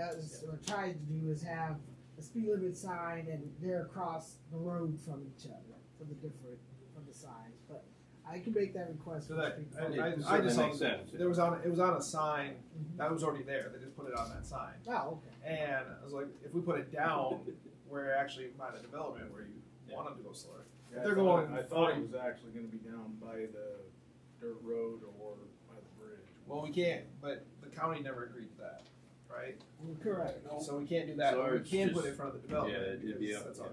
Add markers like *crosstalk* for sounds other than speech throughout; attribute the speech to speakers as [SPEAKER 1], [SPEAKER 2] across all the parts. [SPEAKER 1] does or tries to do is have a speed limit sign and they're across the road from each other for the different from the signs. But I can make that request.
[SPEAKER 2] So
[SPEAKER 1] for
[SPEAKER 2] that,
[SPEAKER 1] speed
[SPEAKER 2] I,
[SPEAKER 1] bumps.
[SPEAKER 2] I, I
[SPEAKER 3] It certainly
[SPEAKER 2] just saw,
[SPEAKER 3] makes sense.
[SPEAKER 2] there was on, it was on a sign
[SPEAKER 3] Mm-hmm.
[SPEAKER 1] Mhm.
[SPEAKER 2] that was already there, they just put it on that sign.
[SPEAKER 1] Oh, okay.
[SPEAKER 2] And I was like, if we put it down where actually by the development where you want them to go slower.
[SPEAKER 4] Yeah, I
[SPEAKER 2] They're
[SPEAKER 4] thought-
[SPEAKER 2] going
[SPEAKER 4] I thought
[SPEAKER 2] forty.
[SPEAKER 4] it was actually gonna be down by the dirt road or by the bridge.
[SPEAKER 2] Well, we can't, but the county never agreed to that, right?
[SPEAKER 1] Well, correct.
[SPEAKER 2] So we can't do that,
[SPEAKER 3] So
[SPEAKER 2] but we
[SPEAKER 3] it's
[SPEAKER 2] can put
[SPEAKER 3] just-
[SPEAKER 2] it in front of the development.
[SPEAKER 3] yeah, it'd be
[SPEAKER 2] because
[SPEAKER 3] up,
[SPEAKER 2] That's
[SPEAKER 3] yeah.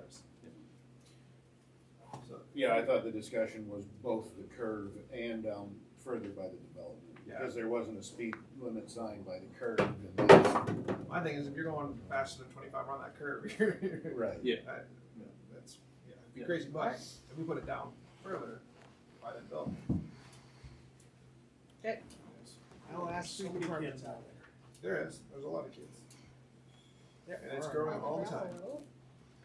[SPEAKER 2] ours. So,
[SPEAKER 5] Yeah, I thought the discussion was both the curve and down further by the development.
[SPEAKER 2] Yeah.
[SPEAKER 5] Because there wasn't a speed limit sign by the curve and that's,
[SPEAKER 2] my thing is if you're going faster than twenty-five on that curve, *laughs* you're,
[SPEAKER 5] right.
[SPEAKER 2] That's yeah, it'd be
[SPEAKER 3] Yeah.
[SPEAKER 2] crazy. But if we put it down further, by then they'll.
[SPEAKER 1] Okay. I'll ask the department. out
[SPEAKER 2] There is. There's a lot of kids.
[SPEAKER 1] there.
[SPEAKER 2] And it's growing all the time.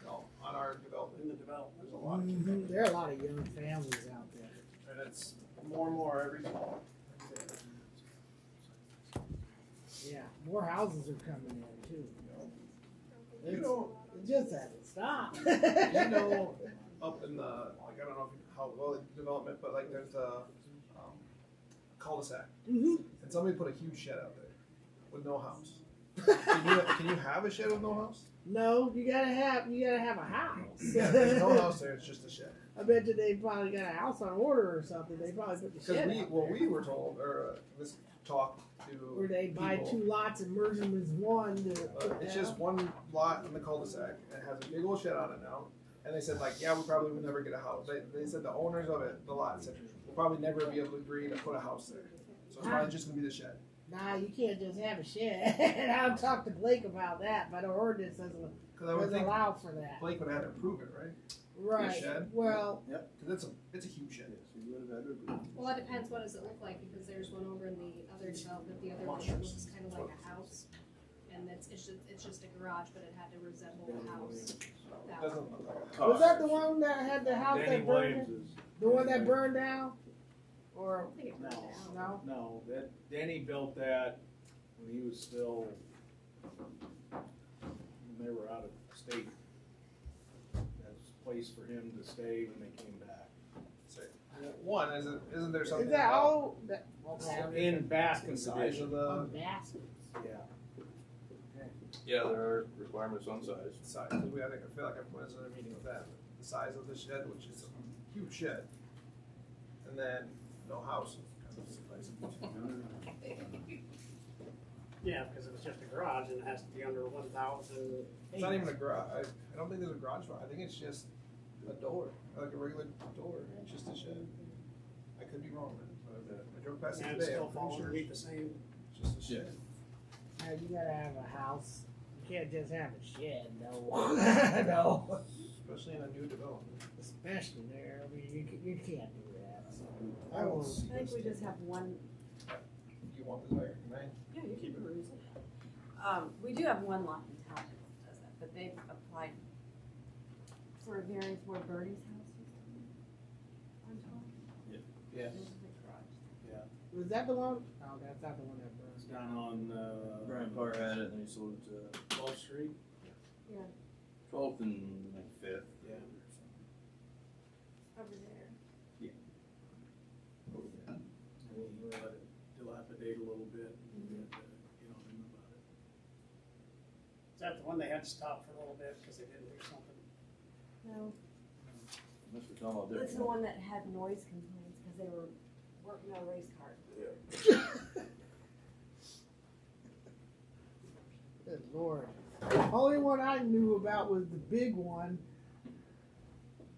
[SPEAKER 2] No, on our development,
[SPEAKER 6] in the development.
[SPEAKER 2] there's a lot of kids.
[SPEAKER 1] Mhm. There are a lot of young families out there.
[SPEAKER 2] And it's more and more every fall.
[SPEAKER 1] Yeah, more houses are coming in too.
[SPEAKER 2] You know,
[SPEAKER 1] It just hasn't stopped.
[SPEAKER 2] you
[SPEAKER 1] *laughs*
[SPEAKER 2] know, up in the like I don't know if you- how well it's development, but like there's a um, cul-de-sac,
[SPEAKER 1] Mhm.
[SPEAKER 2] and somebody put a huge shed out there with no house. Can you, can you have a shed with no house?
[SPEAKER 1] Mm-hmm. *laughs* No, you gotta have you gotta have a house.
[SPEAKER 2] Yeah, there's no
[SPEAKER 1] *laughs*
[SPEAKER 2] house there. It's just a shed.
[SPEAKER 1] I bet you they probably got a house on order or something. They probably put the
[SPEAKER 2] Because
[SPEAKER 1] shed
[SPEAKER 2] we,
[SPEAKER 1] out
[SPEAKER 2] well,
[SPEAKER 1] there.
[SPEAKER 2] we were told, or uh, this talk to.
[SPEAKER 1] Where they buy
[SPEAKER 2] people,
[SPEAKER 1] two lots and merge them as one. To
[SPEAKER 2] uh, it's just one lot in the cul-de-sac and it has a big old shed on it now. And they said like, yeah, we probably would never get a house. They, they said the owners of it, the lot said, we'll probably never be able to agree to put a house there. So it's probably just gonna be the shed.
[SPEAKER 1] nah, you can't just have a shed. *laughs* and I'll talk to Blake about that, but the ordinance doesn't,
[SPEAKER 2] Because I would
[SPEAKER 1] doesn't
[SPEAKER 2] think
[SPEAKER 1] allow for that.
[SPEAKER 2] Blake would have to prove it, right?
[SPEAKER 1] Right.
[SPEAKER 2] shed?
[SPEAKER 1] Well,
[SPEAKER 2] Because it's a it's a huge shed.
[SPEAKER 7] Well, it depends, what does it look like, because there's one over in the other development, the other one that looks kind of like a house. And it's, it's just, it's just a garage, but it had to resemble a house.
[SPEAKER 2] It doesn't look like. A house.
[SPEAKER 1] was that the one that had the house
[SPEAKER 4] Uh, Danny
[SPEAKER 1] that burned?
[SPEAKER 4] Williams is,
[SPEAKER 1] The one that burned down? Or
[SPEAKER 7] I think it burned
[SPEAKER 4] No.
[SPEAKER 7] down.
[SPEAKER 1] no?
[SPEAKER 4] no, that, Danny built that when he was still, when they were out of state. That's a place for him to stay when they came back.
[SPEAKER 2] So, one isn't isn't there something
[SPEAKER 1] Is that
[SPEAKER 2] about
[SPEAKER 1] all? Oh, That, okay.
[SPEAKER 4] In Baskin
[SPEAKER 2] the size
[SPEAKER 4] condition,
[SPEAKER 2] of the
[SPEAKER 4] yeah.
[SPEAKER 3] Yeah, there are requirements on size.
[SPEAKER 2] size? 'Cause We I think I feel like I went to another meeting with that. The size of the shed, which is a huge shed, and then no house.
[SPEAKER 6] Yeah, because it was just a garage and it has to be under one thousand.
[SPEAKER 2] It's not even a garage. I, I don't think there's a garage door. I think it's just a door, like a regular door. It's just a shed. I could be wrong, but uh, I drove past it
[SPEAKER 6] And it
[SPEAKER 2] today.
[SPEAKER 6] still
[SPEAKER 2] I'm
[SPEAKER 6] falls
[SPEAKER 2] pretty
[SPEAKER 6] underneath
[SPEAKER 2] sure
[SPEAKER 6] the same.
[SPEAKER 2] it's just a shed.
[SPEAKER 1] Now, you gotta have a house. You can't just have a shed, no. *laughs* no.
[SPEAKER 2] Especially in a new development.
[SPEAKER 1] Especially there. I mean, you, ca- you can't do that. So.
[SPEAKER 2] I will see
[SPEAKER 8] I think
[SPEAKER 2] this
[SPEAKER 8] we
[SPEAKER 2] thing.
[SPEAKER 8] just have one,
[SPEAKER 2] You want this back, man?
[SPEAKER 8] yeah, you keep it reasonable. Um, we do have one lot in town that does that, but they've applied for a variance where Bertie's house was on top.
[SPEAKER 4] Yeah.
[SPEAKER 8] There's a garage.
[SPEAKER 1] Was that the one? Oh, that's not the one that
[SPEAKER 4] It's
[SPEAKER 1] burned.
[SPEAKER 4] down on, uh.
[SPEAKER 3] Brian Parr had it, and he sold it to
[SPEAKER 4] Twelfth Street?
[SPEAKER 3] twelfth and like fifth.
[SPEAKER 4] Yeah.
[SPEAKER 7] Over there.
[SPEAKER 4] And we'll let it dilapidate a little bit and get, uh, you know, in about it.
[SPEAKER 6] Is that the one they had to stop for a little bit because they didn't do something?
[SPEAKER 8] No,
[SPEAKER 3] Must be talking about different.
[SPEAKER 8] that's the one that had noise complaints because they were working on a race car.
[SPEAKER 1] Good lord. Only one I knew about was the big one.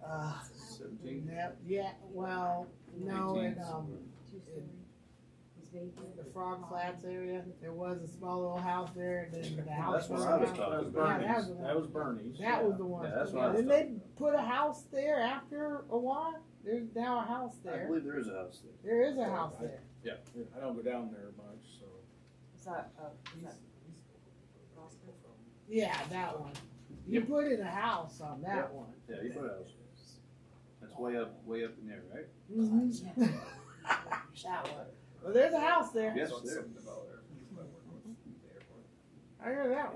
[SPEAKER 1] Uh,
[SPEAKER 3] Seventeen.
[SPEAKER 1] that, yeah, well, no, and um,
[SPEAKER 8] Two story. It was vacant.
[SPEAKER 1] the Frog Flats area, there was a small little house there, and then the house burned
[SPEAKER 3] That's what I was
[SPEAKER 1] down.
[SPEAKER 3] talking
[SPEAKER 1] Yeah,
[SPEAKER 3] about.
[SPEAKER 1] that was the one.
[SPEAKER 4] Bernie's.
[SPEAKER 1] That was the one.
[SPEAKER 3] Yeah, that's what I
[SPEAKER 1] Yeah,
[SPEAKER 3] was
[SPEAKER 1] Didn't they put a house there after a while? There's now a house
[SPEAKER 3] I
[SPEAKER 1] there.
[SPEAKER 3] believe there is a house there.
[SPEAKER 1] There is a house there.
[SPEAKER 4] I don't go down there much, so.
[SPEAKER 8] Is that, uh, is that Roscoe?
[SPEAKER 1] Yeah, that one. You
[SPEAKER 3] Yep.
[SPEAKER 1] put in a house on that one.
[SPEAKER 3] Yeah, you put a house. That's way up, way up in there, right?
[SPEAKER 1] Mhm. Mm-hmm. *laughs* that one. Well, there's a house there.
[SPEAKER 3] Yes,
[SPEAKER 2] So it's
[SPEAKER 3] there.
[SPEAKER 2] Some developer. People that work with the airport.
[SPEAKER 1] I heard that one.